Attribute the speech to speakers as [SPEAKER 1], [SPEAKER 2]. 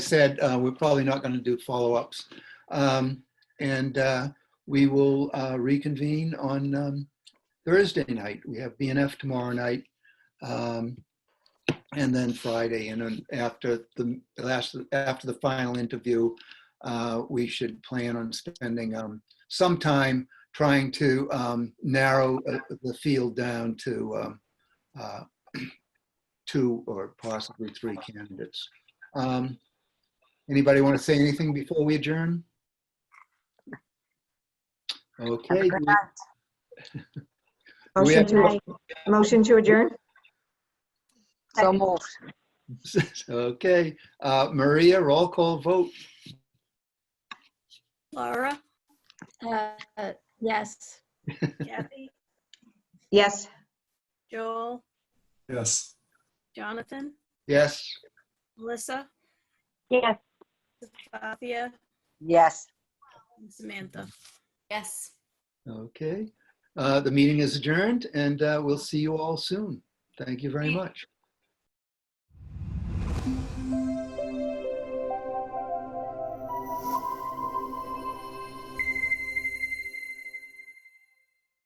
[SPEAKER 1] said, uh, we're probably not going to do follow-ups. Um, And uh, we will uh, reconvene on um, Thursday night. We have BNF tomorrow night. um, And then Friday, and then after the last, after the final interview, uh, we should plan on spending um, some time trying to um, narrow uh, the field down to um, uh, two or possibly three candidates. Um, Anybody want to say anything before we adjourn? Okay, Do we
[SPEAKER 2] Motion
[SPEAKER 1] have
[SPEAKER 2] to, motion to adjourn?
[SPEAKER 3] So moved.
[SPEAKER 1] okay. Uh, Maria, roll call vote.
[SPEAKER 4] Laura? Uh, uh, Yes. Kathy?
[SPEAKER 2] Yes.
[SPEAKER 4] Joel?
[SPEAKER 5] Yes.
[SPEAKER 4] Jonathan?
[SPEAKER 1] Yes,
[SPEAKER 4] Melissa?
[SPEAKER 2] Yes.
[SPEAKER 4] Flavia?
[SPEAKER 3] Yes.
[SPEAKER 4] and Samantha?
[SPEAKER 6] Yes.
[SPEAKER 1] okay. Uh, The meeting is adjourned and uh, we'll see you all soon. Thank you very much.